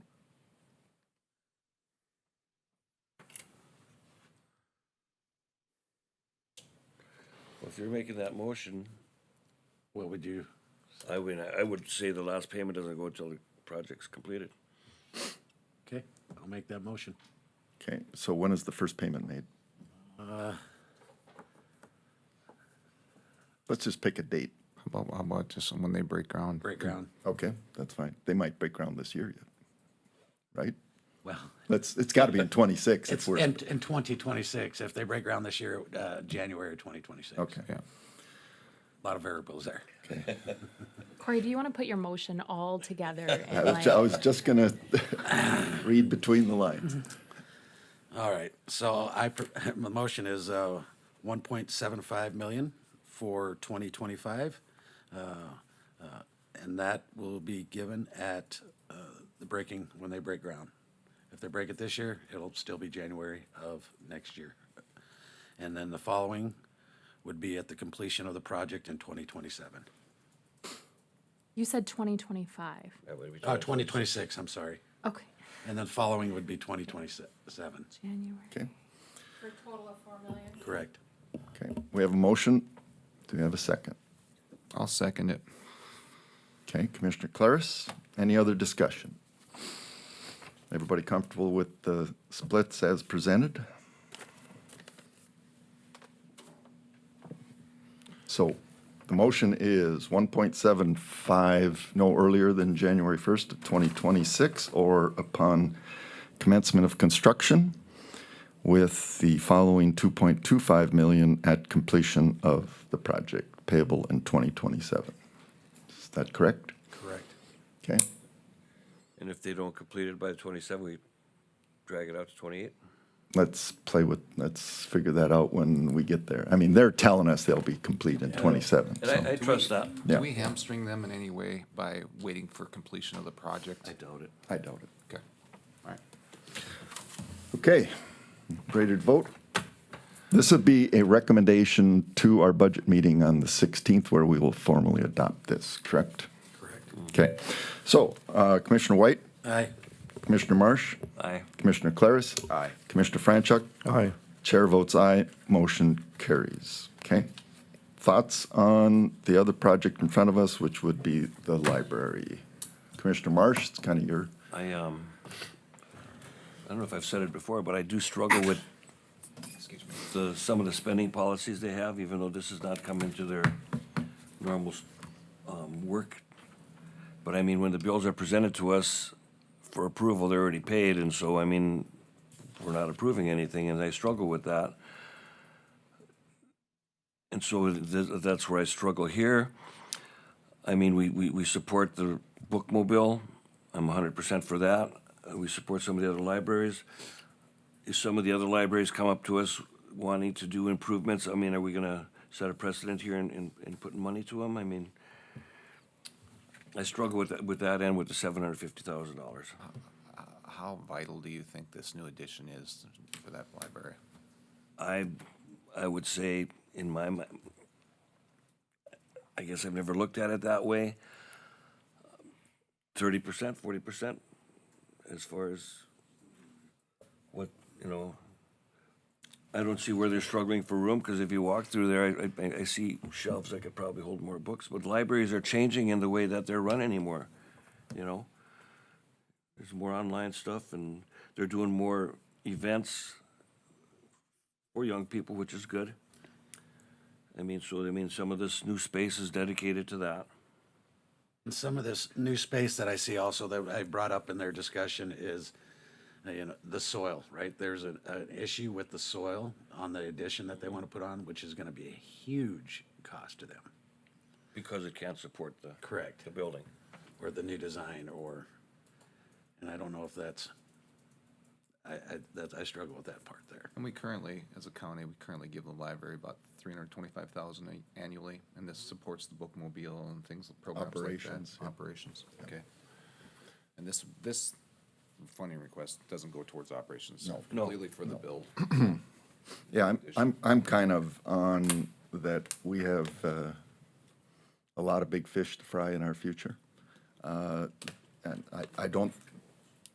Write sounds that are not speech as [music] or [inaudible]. if you're making that motion, What would you, I would, I would say the last payment doesn't go until the project's completed. okay, I'll make that motion. Okay, so when is the first payment made? Uh, Let's just pick a date. How about, how about just when they break ground? Break ground. Okay, that's fine. They might break ground this year yet, right? Well, That's, it's gotta be in twenty-six if it's we're, in, in twenty twenty-six, if they break ground this year, uh, January twenty twenty-six. okay. Yeah. A Lot of variables there. Corey, do you want to put your motion all together? I and, was, ju- I like- was just gonna [laughs] read between the lines. Mm-hmm. All right, so I, pr- [laughs] my motion is, uh, one point seven five million for twenty twenty-five. Uh, And that will be given at, uh, the breaking, when they break ground. If they break it this year, it'll still be January of next year. And then the following would be at the completion of the project in twenty twenty-seven. You said 2025. That way we Uh, twenty twenty-six, I'm sorry. Okay, And then following would be twenty twenty-seven, January. Okay, For a total of four million. correct? okay. We have a motion. Do we have a second? I'll second it. Okay, Commissioner Claris, any other discussion? Everybody comfortable with the splits as presented? So the motion is 1.75, no earlier than January 1st of 2026 or upon commencement of construction with the following 2.25 million at completion of the project payable in 2027. Is that correct? Correct. Okay, And if they don't complete it by twenty-seven, we drag it out to twenty-eight? let's play with, let's figure that out when we get there. I mean, they're telling us they'll be complete in twenty-seven, And so, I, I trust that. Yeah. Do we hamstring them in any way by waiting for completion of the project? doubt it. I doubt it. Okay, all right. Okay, graded vote. This would be a recommendation to our budget meeting on the sixteenth where we will formally adopt this, correct? Correct. Mm. Okay, so uh, Commissioner White, Aye. Commissioner Marsh, Aye. Commissioner Claris. Aye. Commissioner Franchuk. Aye. Chair votes aye, motion carries. Okay. Thoughts on the other project in front of us, which would be the library? Commissioner Marsh, it's kind of your, I, um, I don't know if I've said it before, but I do struggle with Excuse me. the, some of the spending policies they have, even though this has not come into their normal, um, work. But I mean, when the bills are presented to us for approval, they're already paid, and so, I mean, we're not approving anything, and I struggle with that. And so th- that's where I struggle here. I mean, we, we, we support the bookmobile. I'm hundred percent for that. Uh, We support some of the other libraries. If some of the other libraries come up to us wanting to do improvements, I mean, are we gonna set a precedent here and, and, and putting money to them? I mean, I struggle with that, with that and with the seven hundred fifty thousand dollars. How vital do you think this new addition is for that library? I, I would say in my, mi- I guess I've never looked at it that way. Thirty percent, forty percent, as far as what, you know, I don't see where they're struggling for room, because if you walk through there, I, I, I see shelves that could probably hold more books, but libraries are changing in the way that they're run anymore, you know? There's more online stuff, and they're doing more events for young people, which is good. I mean, so, I mean, some of this new space is dedicated to that. And some of this new space that I see also that I brought up in their discussion is, uh, you know, the soil, right? There's an, an issue with the soil on the addition that they want to put on, which is going to be a huge cost to them. Because it can't support the. Correct. The building. Or the new design or, and I don't know if that's, I, I, that, I struggle with that part there. And we currently, as a county, we currently give the library about three hundred twenty-five thousand annually, and this supports the bookmobile and things, programs like Operations, that. Operations, okay. And this, this funding request doesn't go towards operations. No. Completely for the build. yeah, I'm, I'm, I'm kind of on that we have uh, a lot of big fish to fry in our future. Uh, And I, I don't